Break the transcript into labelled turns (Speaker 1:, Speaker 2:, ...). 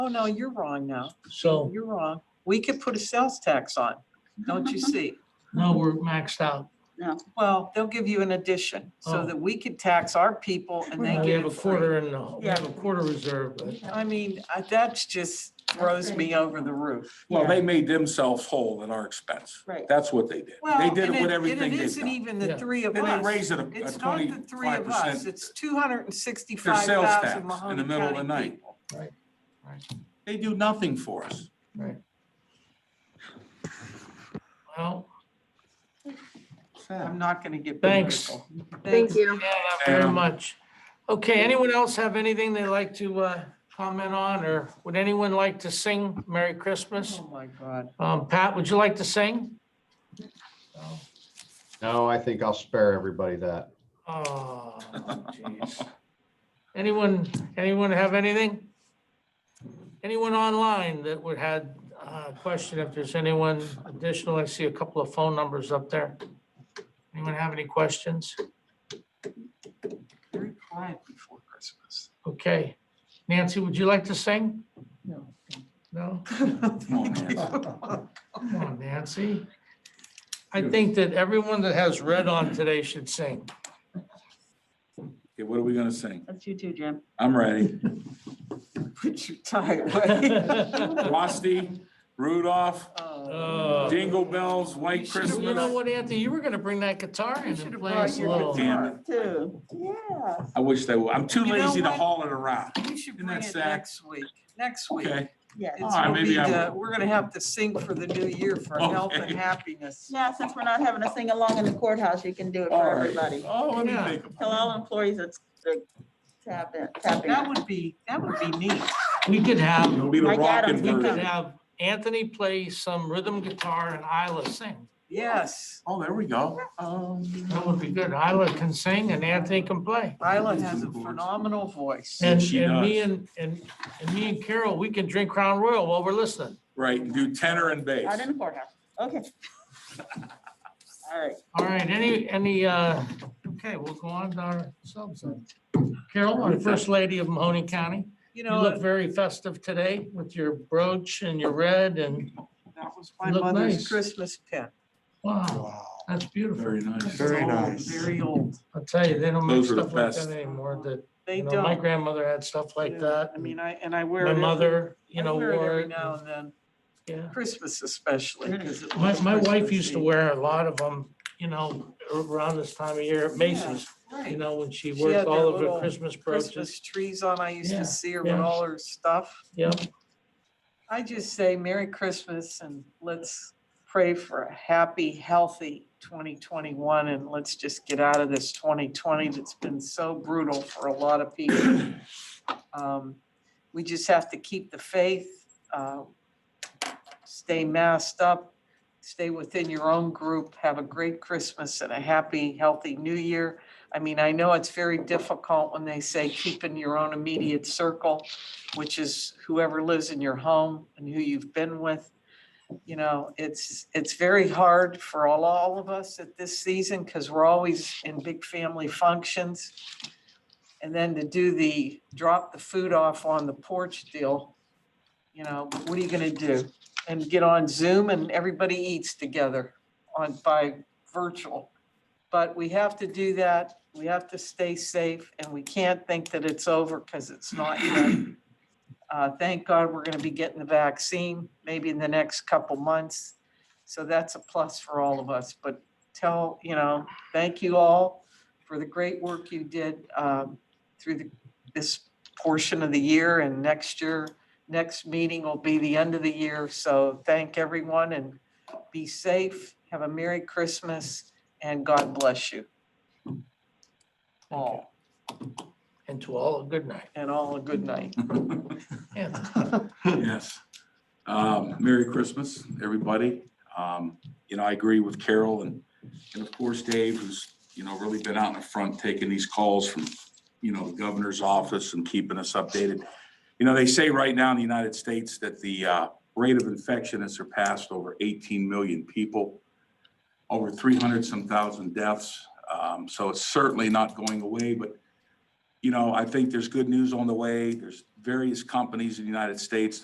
Speaker 1: Oh, no, you're wrong now.
Speaker 2: So
Speaker 1: You're wrong. We could put a sales tax on, don't you see?
Speaker 2: now we're maxed out.
Speaker 1: Well, they'll give you an addition so
Speaker 2: Oh.
Speaker 1: that we could tax our people and they
Speaker 2: Now We
Speaker 1: get
Speaker 2: have a
Speaker 1: it free.
Speaker 2: quarter and, a- we have a quarter reserve, but
Speaker 1: I mean, I- that's just throws me over the roof.
Speaker 3: Well,
Speaker 4: Yeah.
Speaker 3: they made themselves whole at our expense.
Speaker 4: Right.
Speaker 3: That's what they did.
Speaker 1: Well,
Speaker 3: They did
Speaker 1: and
Speaker 3: it
Speaker 1: and
Speaker 3: with everything
Speaker 1: It
Speaker 3: they've
Speaker 1: isn't
Speaker 3: done.
Speaker 1: even the
Speaker 2: Yeah.
Speaker 1: three of
Speaker 3: Then they
Speaker 1: us.
Speaker 3: raised it a
Speaker 1: It's not the three
Speaker 3: twenty-five
Speaker 1: of us.
Speaker 3: percent,
Speaker 1: It's two hundred and
Speaker 3: their
Speaker 1: sixty-five
Speaker 3: sales
Speaker 1: thousand
Speaker 3: tax in
Speaker 1: Mahoney
Speaker 3: the middle of the
Speaker 1: County
Speaker 3: night.
Speaker 1: people.
Speaker 3: They do nothing for us.
Speaker 2: well,
Speaker 1: I'm not gonna get.
Speaker 2: Thanks.
Speaker 1: political.
Speaker 4: Thank you.
Speaker 2: yeah, very
Speaker 3: Yeah.
Speaker 2: much. Okay, anyone else have anything they'd like to uh, comment on, or would anyone like to sing Merry Christmas?
Speaker 1: Oh, my God.
Speaker 2: Um, Pat, would you like to sing?
Speaker 5: No, I think I'll spare everybody that.
Speaker 2: Oh, jeez. Anyone, anyone have anything? Anyone online that would had a question, if there's anyone additional, I see a couple of phone numbers up there. Anyone have any questions?
Speaker 1: Very quiet before Christmas.
Speaker 2: Okay. Nancy, would you like to sing?
Speaker 1: No.
Speaker 2: No?
Speaker 3: Come on, Oh, man.
Speaker 2: Come on, Nancy. I think that everyone that has red on today should sing.
Speaker 3: Okay, what are we gonna sing?
Speaker 4: That's you too, Jim.
Speaker 3: I'm ready.
Speaker 1: Put your tie away.
Speaker 3: Rusty, Rudolph,
Speaker 2: Oh.
Speaker 3: Jingle Bells,
Speaker 2: You
Speaker 3: White
Speaker 2: know
Speaker 3: Christmas.
Speaker 2: what, Anthony, you were gonna bring that guitar in and play us a little.
Speaker 3: Damn it.
Speaker 4: Too.
Speaker 3: I wish they would. I'm too
Speaker 1: You know
Speaker 3: lazy to
Speaker 1: what?
Speaker 3: haul it around.
Speaker 1: You should
Speaker 3: Isn't
Speaker 1: bring
Speaker 3: that
Speaker 1: it
Speaker 3: sad?
Speaker 1: next week, next week.
Speaker 3: Okay,
Speaker 4: Yeah.
Speaker 1: It's
Speaker 3: All right,
Speaker 1: gonna
Speaker 3: maybe
Speaker 1: be
Speaker 3: I
Speaker 1: the- We're gonna have to sing for the new year for health and
Speaker 3: Okay.
Speaker 1: happiness.
Speaker 4: Now, since we're not having a sing-along in the courthouse, you can do it
Speaker 3: all
Speaker 4: for
Speaker 3: right.
Speaker 4: everybody.
Speaker 3: Oh, let me
Speaker 2: Yeah.
Speaker 3: think of
Speaker 4: Tell all employees it's the tap in, tap
Speaker 1: That
Speaker 4: in.
Speaker 1: would be, that would be neat.
Speaker 2: We could have,
Speaker 3: It'll
Speaker 2: we
Speaker 3: be the
Speaker 4: I got
Speaker 3: rockin'
Speaker 4: him.
Speaker 2: could
Speaker 3: version.
Speaker 2: have Anthony play some rhythm guitar and Isla sing.
Speaker 1: Yes,
Speaker 3: Oh, there we go. Um,
Speaker 2: That would be good. Isla can sing and Anthony can play.
Speaker 1: Isla has a phenomenal voice.
Speaker 2: And,
Speaker 3: she
Speaker 2: and me
Speaker 3: does.
Speaker 2: and, and, and me and Carol, we can drink Crown Royal while we're listening.
Speaker 3: Right, and do tenor and
Speaker 4: Out
Speaker 3: bass.
Speaker 4: in the courthouse. Okay. All right.
Speaker 2: All right, any, any, uh, okay, we'll go on to ourselves then. Carol, our first lady of Mahoney County,
Speaker 1: You
Speaker 2: you look
Speaker 1: know,
Speaker 2: very festive today with your brooch and your red and,
Speaker 1: that was my
Speaker 2: you look
Speaker 1: mother's
Speaker 2: nice.
Speaker 1: Christmas pin.
Speaker 2: wow, that's beautiful.
Speaker 3: Very nice.
Speaker 1: It's old, Very old.
Speaker 2: I'll tell you, they don't make
Speaker 3: Those are the
Speaker 2: stuff like
Speaker 3: best.
Speaker 2: that anymore, that
Speaker 1: They
Speaker 2: You know, my
Speaker 1: don't.
Speaker 2: grandmother had stuff like that.
Speaker 1: I mean, I, and I wear it.
Speaker 2: My
Speaker 1: every-
Speaker 2: mother, you
Speaker 1: I
Speaker 2: know,
Speaker 1: wear it
Speaker 2: wore
Speaker 1: Every
Speaker 2: it.
Speaker 1: now and then,
Speaker 2: Yeah.
Speaker 1: Christmas especially. 'cause it
Speaker 2: My,
Speaker 1: looks
Speaker 2: my wife
Speaker 1: Christmassy.
Speaker 2: used to wear a lot of them, you know, around this time of year at Macy's, you
Speaker 1: Right.
Speaker 2: know, when she
Speaker 1: She
Speaker 2: worked
Speaker 1: had
Speaker 2: all
Speaker 1: that
Speaker 2: of her
Speaker 1: little
Speaker 2: Christmas brooches.
Speaker 1: Christmas trees on. I used
Speaker 2: Yeah,
Speaker 1: to see her with
Speaker 2: yeah.
Speaker 1: all her stuff.
Speaker 2: Yep.
Speaker 1: I just say Merry Christmas and let's pray for a happy, healthy 2021. And let's just get out of this 2020 that's been so brutal for a lot of people. Um, We just have to keep the faith, uh, stay masked up, stay within your own group, have a great Christmas and a happy, healthy new year. I mean, I know it's very difficult when they say keep in your own immediate circle, which is whoever lives in your home and who you've been with. You know, it's, it's very hard for all, all of us at this season because we're always in big family functions. And then to do the drop the food off on the porch deal, you know, what are you gonna do? And get on Zoom and everybody eats together on, by virtual. But we have to do that. We have to stay safe and we can't think that it's over because it's not yet. Uh, Thank God we're going to be getting the vaccine maybe in the next couple months. So that's a plus for all of us. But tell, you know, thank you all for the great work you did um, through the- this portion of the year and next year. Next meeting will be the end of the year. So thank everyone and be safe. Have a Merry Christmas and God bless you. All,
Speaker 2: And to all, a good night.
Speaker 1: and all a good night.
Speaker 2: Anthony,
Speaker 3: Yes. Um, Merry Christmas, everybody. Um, you know, I agree with Carol and, and of course Dave, who's, you know, really been out in the front taking these calls from, you know, the governor's office and keeping us updated. You know, they say right now in the United States that the, uh, rate of infection has surpassed over eighteen million people, over three hundred some thousand deaths. Um, so it's certainly not going away, but you know, I think there's good news on the way. There's various companies in the United States